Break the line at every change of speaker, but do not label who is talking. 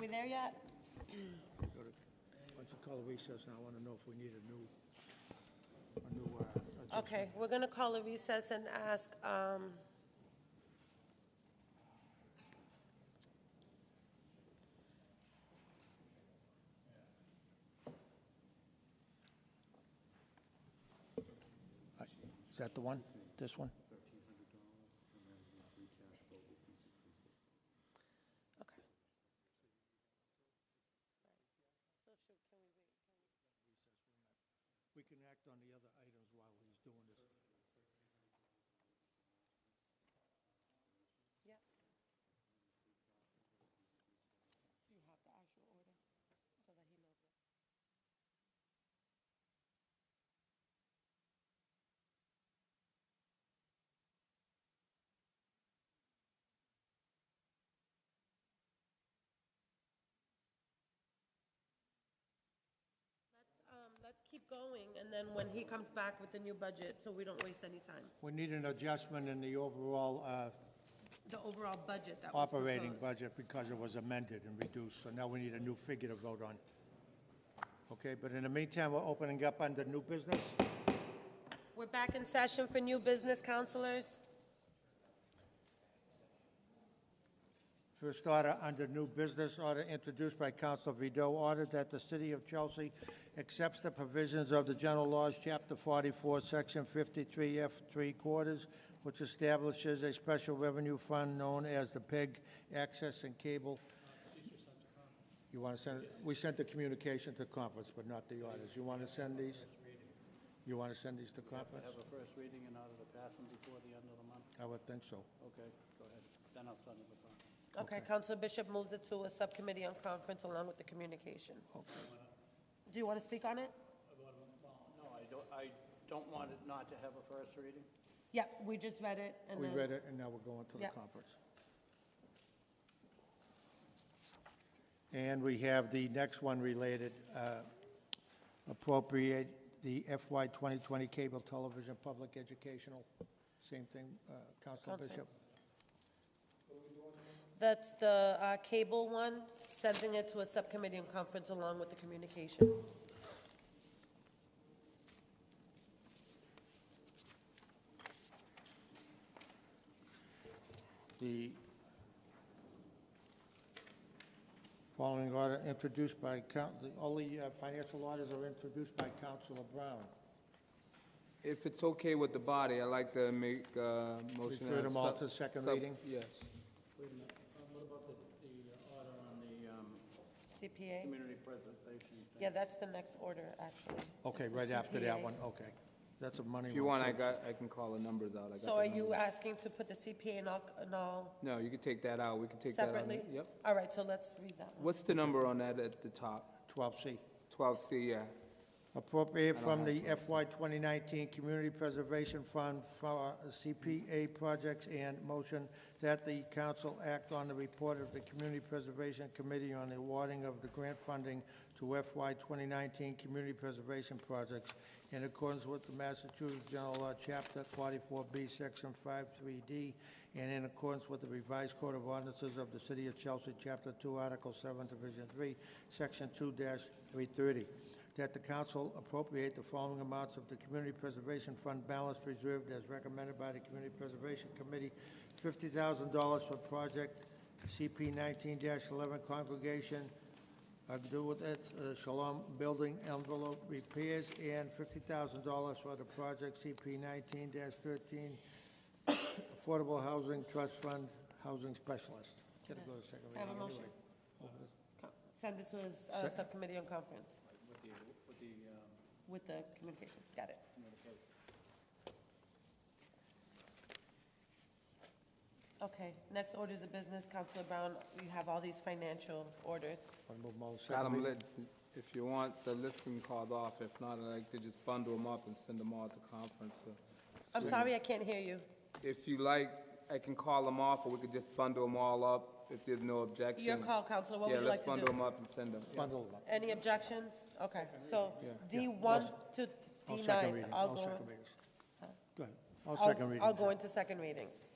we there yet?
Go to- Why don't you call a recess, and I want to know if we need a new, a new, uh, adjustment.
Okay, we're going to call a recess and ask, um,
Uh, Is that the one? This one?
okay.
We can act on the other items while he's doing this.
Yep. Let's, um, let's keep going, and then when he comes back with the new budget, so we don't waste any time.
We need an adjustment in the overall uh,
The overall budget that was
operating
proposed.
budget because it was amended and reduced, so now we need a new figure to vote on. Okay, but in the meantime, we're opening up under new business?
We're back in session for new business counselors.
First order under new business order introduced by Council Vido, order that the City of Chelsea accepts the provisions of the General Laws, Chapter 44, Section 53F 3 quarters, which establishes a special revenue fund known as the PEG Access and Cable. You want to send, it? we sent the communication to conference, but not the orders. You want to send these? You want to send these to
I
conference?
have a first reading in order to pass them before the end of the month.
I would think so.
Okay, go ahead. Then I'll send it to them.
Okay, Counselor Bishop moves it to a subcommittee on conference along with the communication. Do you want to speak on it?
No, I don't, I don't want it not to have a first reading.
Yeah, we just read it, and
We
then...
read it, and now we're going to the
Yeah.
conference. And we have the next one related, uh, appropriate the FY 2020 Cable Television Public Educational, same thing, uh, Council
Counsel.
Bishop.
That's the uh, cable one, sending it to a subcommittee on conference along with the communication.
The following order introduced by, coun- the only uh, financial orders are introduced by Councilor Brown.
If it's okay with the body, I'd like to make a motion.
Refer them all
as sub-
to second
sub-
reading?
Yes.
Wait a minute, what about the, the order on the
CPA?
community preservation?
Yeah, that's the next order, actually.
Okay,
It's a
right after that
CPA.
one, okay. That's a money one.
If you want, I
too.
got, I can call the numbers out. I got
So are
the
you
numbers.
asking to put the CPA and all, and all
No, you can take that out. We can take that out.
separately?
Yep.
All right, so let's read that one.
What's the number on that at the top?
12C.
Twelve C, yeah.
Appropriate from the FY 2019 Community Preservation Fund for uh, CPA projects and motion that the council act on the report of the Community Preservation Committee on the awarding of the grant funding to FY 2019 Community Preservation Projects in accordance with the Massachusetts General Law, Chapter 44B, Section 53D, and in accordance with the revised Code of Ordinances of the City of Chelsea, Chapter 2, Article 7, Division 3, Section 2-330 that the council appropriate the following amounts of the Community Preservation Fund balance reserved as recommended by the Community Preservation Committee, fifty thousand dollars for project CP nineteen eleven congregation, uh, do with it, uh, Shalom Building envelope repairs, and fifty thousand dollars for the project CP nineteen thirteen Affordable Housing Trust Fund Housing Specialist. Gotta go to second
I have a
reading anyway.
motion. Co- Send it to his uh, subcommittee on conference
With the, with the, um,
with the communication. Got it.
communication.
Okay, next orders of business, Counselor Brown, you have all these financial orders.
Wanna move them all to second
Got 'em
reading?
lit. If you want the listing called off, if not, I'd like to just bundle them up and send them all to conference. So
I'm sorry, I can't hear you.
If you like, I can call them off, or we could just bundle them all up if there's no objection.
Your call, Counselor, what
Yeah,
would you like
let's
to
bundle them
do?
up and send them. Yeah.
Bundle them up.
Any objections? Okay, so
Yeah.
D1 to
All second reading,
D9, I'll
all
go,
second
in-
readings. Go ahead, all second
I'll-
readings.
I'll go into second readings.